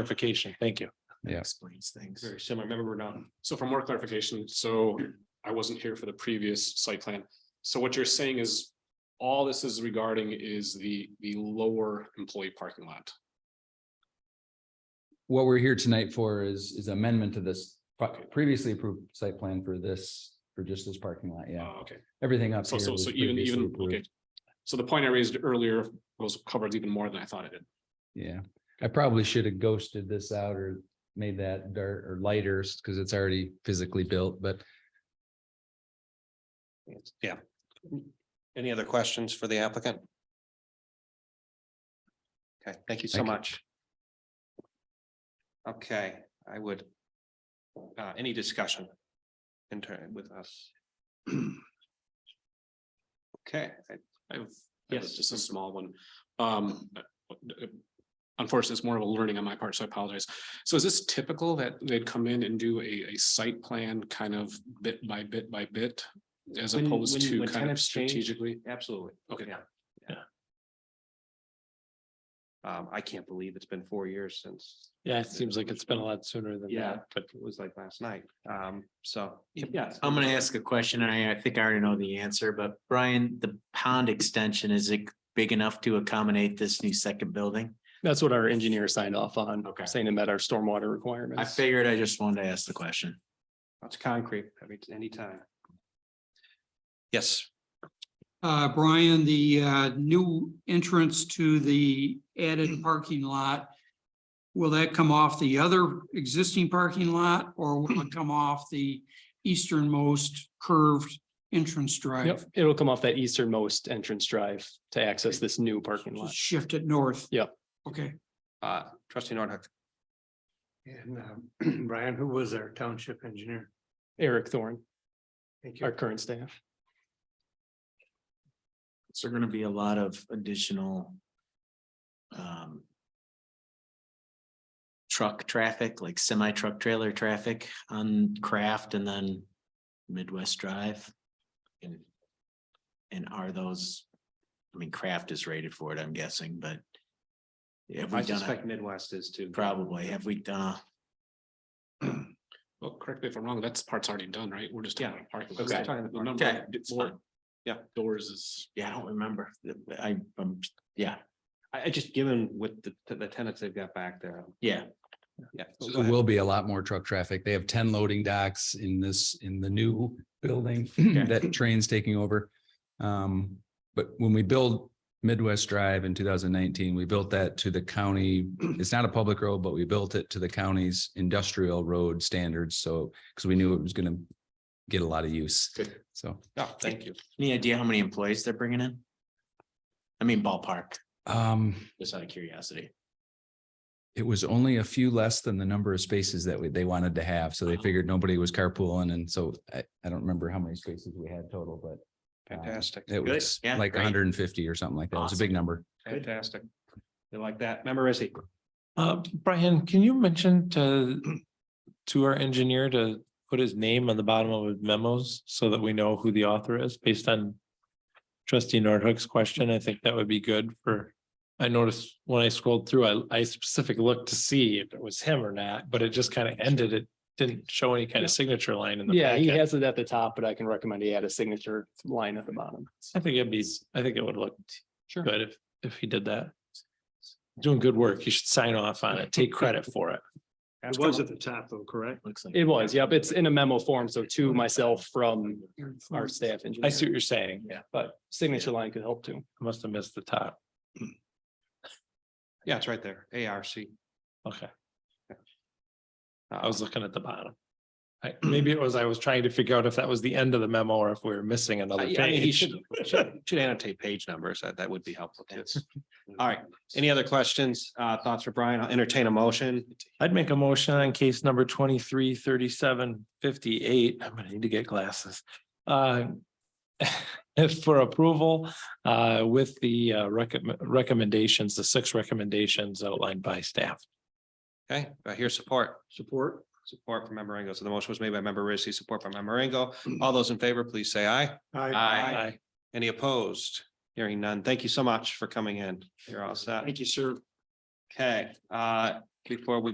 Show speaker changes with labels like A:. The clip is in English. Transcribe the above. A: clarification. Thank you.
B: Yeah.
C: Explains things.
A: Very similar. Remember, we're not. So for more clarification, so I wasn't here for the previous site plan. So what you're saying is all this is regarding is the, the lower employee parking lot.
B: What we're here tonight for is, is amendment to this pro- previously approved site plan for this, for just this parking lot, yeah.
A: Uh, Okay,
B: Everything up
A: so,
B: here.
A: so,
B: was
A: so even,
B: previously
A: even,
B: approved.
A: okay. So the point I raised earlier was covered even more than I thought it did.
B: Yeah, I probably should have ghosted this out or made that dark or lighter, because it's already physically built, but
D: Yeah. Any other questions for the applicant? Okay, thank you so
B: Thank you.
D: much. Okay, I would. Uh, any discussion? In turn with us. Okay, I-
A: I have,
D: Yes.
A: yes, just a small one. Um. Unfortunately, it's more of a learning on my part, so I apologize. So is this typical that they'd come in and do a, a site plan kind of bit by bit by bit? As
D: When-
A: opposed
D: when-
A: to
D: when
A: kind of
D: tenants change-
A: strategically?
D: absolutely.
A: Okay.
D: Yeah. Yeah. Um, I can't believe it's been four years since.
C: Yeah, it seems like it's been a lot sooner than
D: Yeah,
C: that.
D: but it was like last night. Um, so.
E: Yeah, I'm gonna ask a question and I, I think I already know the answer, but Brian, the pond extension, is it big enough to accommodate this new second building?
C: That's what our engineer signed off on,
E: Okay.
C: saying it met our stormwater
E: I
C: requirements.
E: figured I just wanted to ask the question.
D: That's concrete every, anytime. Yes,
F: Uh, Brian, the, uh, new entrance to the added parking lot, will that come off the other existing parking lot or will it come off the easternmost curved entrance
C: Yep,
F: drive?
C: it'll come off that easternmost entrance drive to access this new parking
F: Just
C: lot.
F: Shift it north?
C: Yep.
F: Okay,
D: uh, trustee Norhuck.
G: And um, Brian, who was our township engineer?
C: Eric Thorne,
G: Thank
C: our
G: you.
C: current staff.
E: Is there gonna be a lot of additional? um, Truck traffic, like semi truck trailer traffic on Craft and then Midwest Drive? And and are those, I mean, Craft is rated for it, I'm guessing, but. Have we
D: I
E: done,
D: suspect
E: a-
D: Midwest is too.
E: probably, have we uh, done, a-
A: Well, correct me if I'm wrong, that's part's already done, right? We're just. talking
D: Yeah.
A: about parking.
D: Okay.
A: We're talking about the number
E: Okay.
A: of d- more
D: Yeah.
A: Doors is.
E: yeah, I don't remember, I, um, yeah,
D: I, I just given with the, the tenants they've got back there, um,
E: yeah,
D: yeah.
B: So There will be a lot more truck traffic. They have ten loading docks in this, in the new building that train's taking over. Um, but when we built Midwest Drive in two thousand nineteen, we built that to the county. It's not a public road, but we built it to the county's industrial road standards. So, because we knew it was gonna get a lot of use.
D: Good.
B: So,
D: No, thank you.
E: any idea how many employees they're bringing in? I mean ballpark,
B: um,
E: just out of curiosity.
B: it was only a few less than the number of spaces that we, they wanted to have. So they
E: Oh.
B: figured nobody was carpooling. And so I, I don't remember how many spaces we had total, but um,
D: Fantastic.
B: It
E: Good.
B: was
E: Yeah,
B: like
E: great.
B: hundred and fifty or something like that. It was a big number.
D: Fantastic. You like that? Member Izzy,
H: Uh, Brian, can you mention to, to our engineer to put his name on the bottom of his memos so that we know who the author is based on trustee Nordhook's question? I think that would be good for, I noticed when I scrolled through, I, I specifically looked to see if it was him or not, but it just kind of ended. It didn't show any kind of signature line in the.
C: Yeah, he
H: packet.
C: has it at the top, but I can recommend he add a signature line at the bottom.
H: I think it'd be, I think it would look
C: Sure.
H: good if, if he did that. Doing good work. You should sign off on it. Take credit for it.
G: It was at the top though, correct?
E: Looks like.
C: It was, yep, it's in a memo form, so to myself from our staff engineer.
H: I see what you're saying.
C: Yeah, but signature line could help too.
H: I must have missed the top.
D: yeah, it's right there, ARC.
H: Okay,
D: Uh,
H: I was looking at the bottom. I, maybe it was, I was trying to figure out if that was the end of the memo or if we were missing
D: I- I
H: another
D: mean, he
H: page.
D: should, should should annotate page numbers, that, that would be helpful too. All right, any other questions, uh, thoughts for Brian? I'll entertain a motion.
H: I'd make a motion on case number twenty-three, thirty-seven, fifty-eight. I'm gonna need to get glasses. Uh, for approval, uh, with the, uh, recommend, recommendations, the six recommendations outlined by staff.
D: Okay, I hear support.
G: Support?
D: Support from member Ringo. So the motion was made by member Rissy, support by member Ringo. All those in favor, please say aye. Aye.
H: Aye.
D: Any opposed? Hearing none. Thank you so much for coming in. You're all set.
G: Thank you, sir.
D: Okay, uh, before we